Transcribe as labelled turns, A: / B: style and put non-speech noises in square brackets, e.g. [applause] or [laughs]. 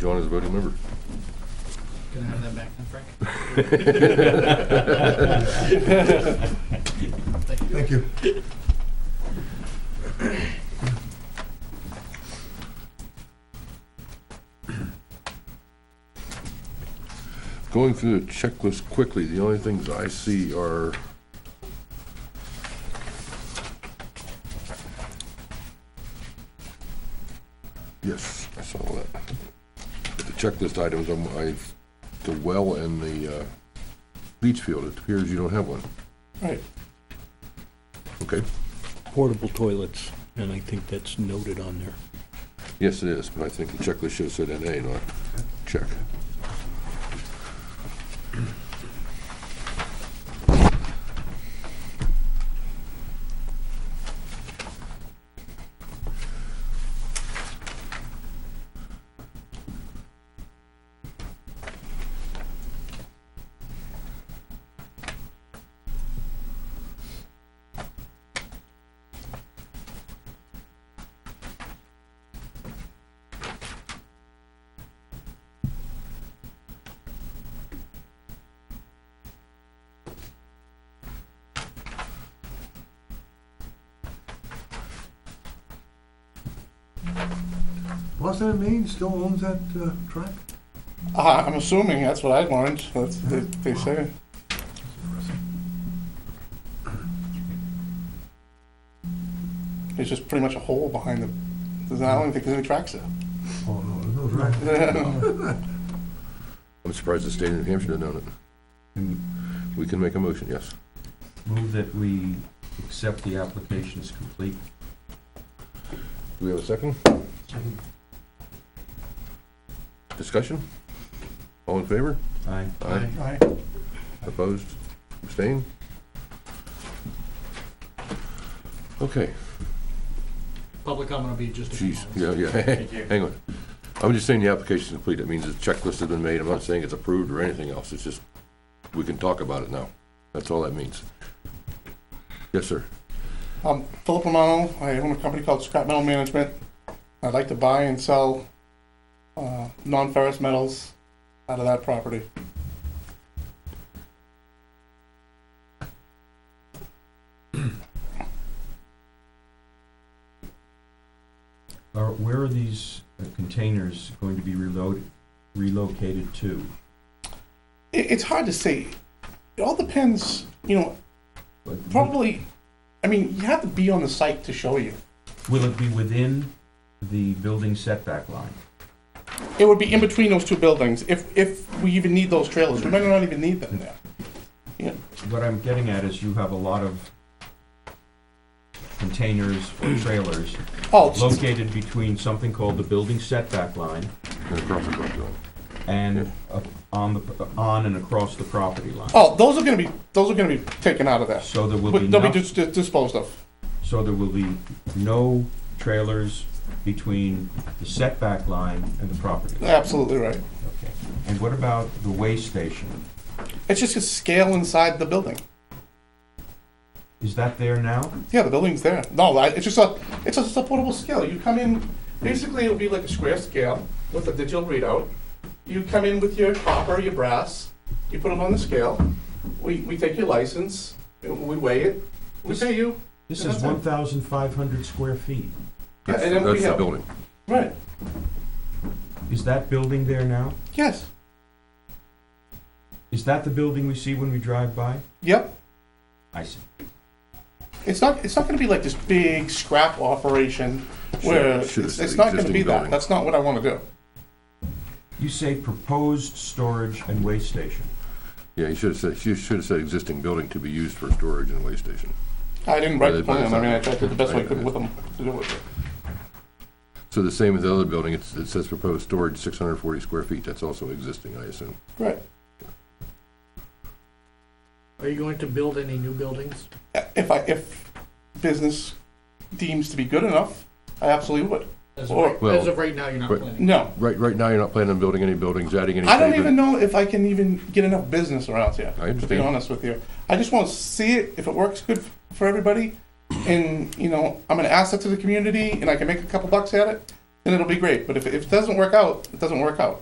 A: John is a voting member.
B: Can I have that back then, Frank?
A: [laughs]
C: Thank you.
A: Going through the checklist quickly, the only things I see are Yes, I saw that. The checklist items, I'm- I, the well and the uh, beach field, it appears you don't have one.
D: Right.
A: Okay,
D: Portable toilets, and I think that's noted on there.
A: yes it is, but I think the checklist should have said NA, not check.
C: Boston and Maine still owns that uh, track?
E: Uh, I'm assuming that's what I learned. That's what they, they say. It's just pretty much a hole behind the. there's- I don't even think there's any tracks there.
C: Oh, no, there's no track. [laughs]
A: I'm surprised the state of New Hampshire didn't own it. We can make a motion, yes.
F: Move that we accept the application as complete.
A: Do we have a second? Discussion? All in favor?
F: Aye.
A: Aye.
E: Aye.
A: Opposed? Abstained? Okay,
B: Public comment will be just a few
A: geez,
B: moments.
A: yeah, [laughs] yeah, hang on. I'm just saying the application's complete, that means the checklist has been made, I'm not saying it's approved or anything else, it's just, we can talk about it now, that's all that means. Yes, sir,
E: Um, Philip Romano. I own a company called Scrap Metal Management. I'd like to buy and sell uh, non-ferrous metals out of that property.
F: Are, where are these uh, containers going to be reloaded, relocated to?
E: It, it's hard to say. It all depends. You know,
F: But
E: probably. I mean, you have to be on the site to show you.
F: Will it be within the building setback line?
E: It would be in between those two buildings, if, if we even need those trailers, we might not even need them there.
F: What I'm getting at is you have a lot of containers or trailers
E: Oh, it's-
F: located between something called the building setback line
A: and across the front door.
F: and uh, on the, on and across the property line.
E: oh, those are gonna be, those are gonna be taken out of there,
F: So there will be
E: they'll be
F: no,
E: dis- dis- disposed of.
F: so there will be no trailers between the setback line and the property line.
E: Absolutely right.
F: Okay. And what about the weigh station?
E: It's just a scale inside the building.
F: Is that there now?
E: Yeah, the building's there. No, I- it's just a, it's just a portable scale. You come in, basically it'll be like a square scale with a digital readout. You come in with your copper, your brass, you put it on the scale, we, we take your license, we weigh it, we pay you.
F: This
E: Yeah,
F: is
E: that's it.
F: one thousand five hundred square feet.
E: Yeah,
A: That's
E: and then we
A: that's the
E: have-
A: building.
E: Right.
F: Is that building there now?
E: Yes,
F: Is that the building we see when we drive by?
E: yep.
F: I see.
E: It's not, it's not gonna be like this big scrap operation where,
A: Should- should
E: it's,
A: have
E: it's
A: said
E: not gonna
A: existing
E: be that,
A: building.
E: that's not what I wanna do.
F: You say proposed storage and weigh station.
A: Yeah, you should have said, you should have said existing building to be used for storage and waste station.
E: I didn't write
A: But
E: the
A: it- but
E: plan,
A: it's
E: I mean, I
A: not-
E: tried to do the best
A: I-
E: I could
A: I-
E: with them to do it.
A: So the same as the other building, it's, it says proposed storage, six hundred and forty square feet, that's also existing, I assume.
E: Right,
B: Are you going to build any new buildings?
E: if I, if business deems to be good enough, I absolutely would,
B: As of
E: Or-
B: right-
A: well,
B: as of right now, you're not
A: right-
B: planning.
E: no.
A: Right, right now, you're not planning on building any buildings, adding any.
E: I don't
A: pavement.
E: even know if I can even get enough business around here,
A: I
E: to be
A: understand.
E: honest with you. I just wanna see it, if it works good for everybody, and, you know, I'm an asset to the community, and I can make a couple bucks at it, and it'll be great. But if, if it doesn't work out, it doesn't work out.